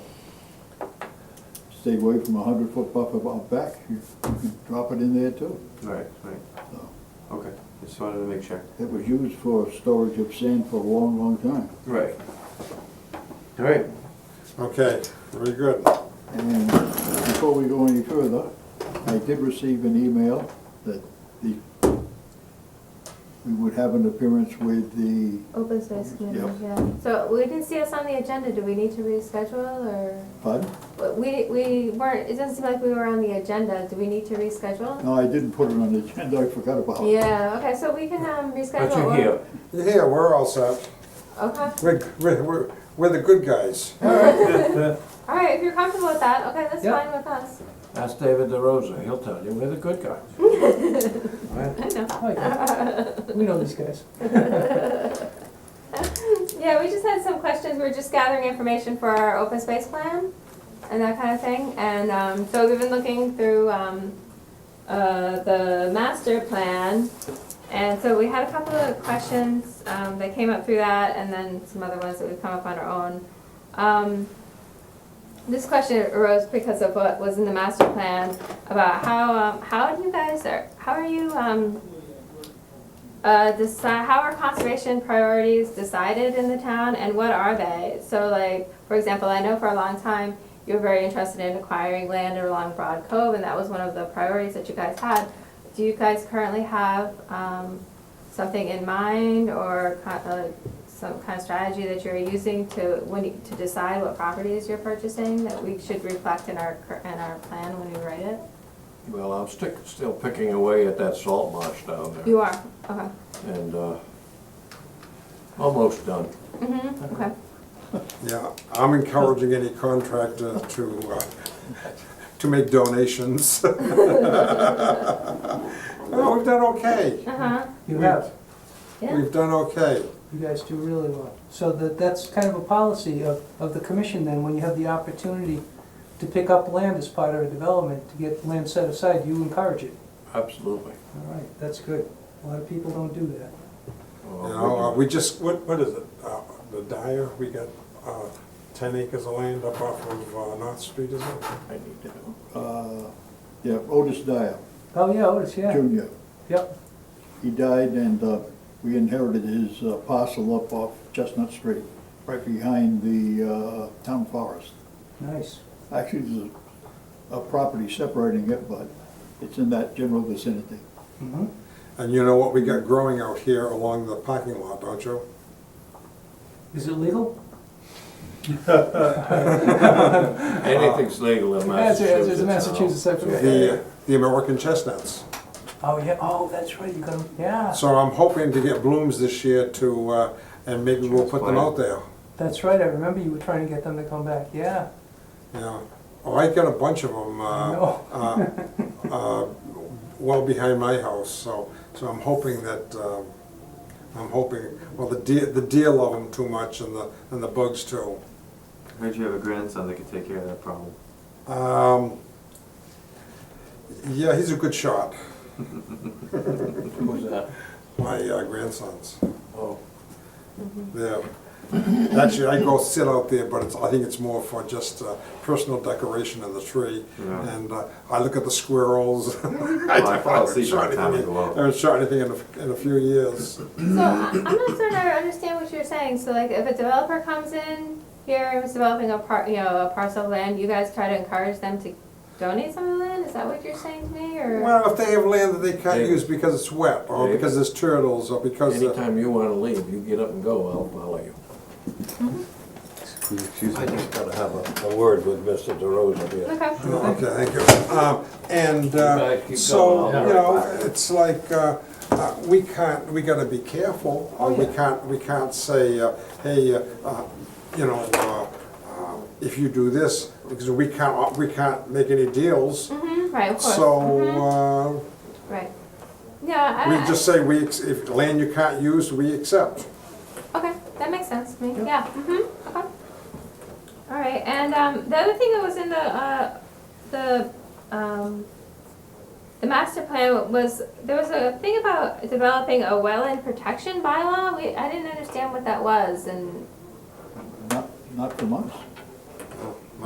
stay away from a hundred foot buffer out back, you you can drop it in there too. Right, right, So, okay, just wanted to make sure. It was used for storage of sand for a long, long time. Right. All right, Okay, very good. And before we go any further, I did receive an email that the, we would have an appearance with the, Open space committee, Yep. yeah. So we didn't see us on the agenda, do we need to reschedule or? pardon? but We, we weren't, it doesn't seem like we were on the agenda, do we need to reschedule? No, I didn't put it on the agenda, I forgot about it. Yeah, okay, so we can um reschedule. but you're or- here. You're here, we're all set. Okay, We're, we're, we're- we're the good guys. all right, if you're comfortable with that, okay, that's Yeah. fine with us. Ask David DeRosa, he'll tell you, we're the good guys. I know. We know these guys. Yeah, we just had some questions, we were just gathering information for our open space plan and that kind of thing. And um, so we've been looking through um, uh, the master plan. And so we had a couple of questions um, that came up through that and then some other ones that we've come up on our own. Um, This question arose because of what was in the master plan about how, um, how do you guys, are how are you um, uh, decide, how are conservation priorities decided in the town and what are they? So like, for example, I know for a long time, you were very interested in acquiring land along Broad Cove and that was one of the priorities that you guys had. Do you guys currently have, um, something in mind or co- uh, some kind of strategy that you're using to, when you, to decide what properties you're purchasing that we should reflect in our, cur- in our plan when we write it? Well, I'm stick, still picking away at that salt marsh down there, You are, okay. and, uh, almost done. Mm-hmm, okay. Yeah, I'm encouraging any contractor to, uh, to make donations. No, we've done okay. Uh-huh, You have, yeah, We've done okay. you guys do really well. So that, that's kind of a policy of, of the commission then, when you have the opportunity to pick up land as part of a development, to get land set aside, you encourage it. Absolutely. All right, that's good. A lot of people don't do that. You know, uh, we just, what, what is it, uh, the Dyer, we got, uh, ten acres of land up off of, uh, North Street, is it? I need to, Uh, Yeah, Otis Dyer, Oh, yeah, Otis, yeah, Junior. yep. He died and uh, we inherited his uh, parcel up off Chestnut Street, right behind the uh, town forest. Nice, Actually, there's a- a property separating it, but it's in that general vicinity. mhm. And you know what we got growing out here along the parking lot, don't you? Is it legal? anything's legal in Massachusetts. It's a Massachusetts now. section. The, uh, the American chestnuts. Oh, yeah, oh, that's right, you got 'em. yeah, So I'm hoping to get blooms this year to, uh, and maybe we'll put them out there, that's right, I remember you were trying to get them to come back, yeah. you know. Oh, I got a bunch of them, I uh, know. uh, uh, well behind my house, so, so I'm hoping that, um, I'm hoping, well, the deer, the deer love them too much and the, and the bugs too. Heard you have a grandson that could take care of that problem. Um, yeah, he's a good shot, Who's that? my uh, grandsons. Oh, Yeah. Actually, I go sit out there, but it's, I think it's more for just uh, personal decoration of the tree. Yeah. And uh, I look at the squirrels. I I fall haven't asleep shot by the time I anything- go out. I haven't shot anything in a, in a few years. So I- I'm not certain I understand what you're saying. So like if a developer comes in here and is developing a par, you know, a parcel of land, you guys try to encourage them to donate some of the land? Is that what you're saying to me or? Well, if they have land that they can't David. use because it's wet, or David. because there's turtles, or because, uh, the- Anytime you wanna leave, you get up and go, I'll follow you. Excuse me, I just gotta have a, a word with Mr. DeRosa here. Okay, Oh, okay, thank you. Um, And uh, Keep going, so, keep going. you know, it's like, uh, uh, we can't, we gotta be careful. Oh, Uh, We can't, we can't say, uh, hey, uh, uh, you know, uh, uh, if you do this, because we can't, uh, we can't make any deals. Mhm, right, of course. Mhm, So Right. Yeah, uh, I, we I, just say, we, ex- if land you can't use, we accept. okay, that makes sense to me. Yeah, mhm, okay. All right, and, um, the other thing that was in the, uh, the, um, the master plan was, there was a thing about developing a wetland protection bylaw. We, I didn't understand what that was and Not, not from us.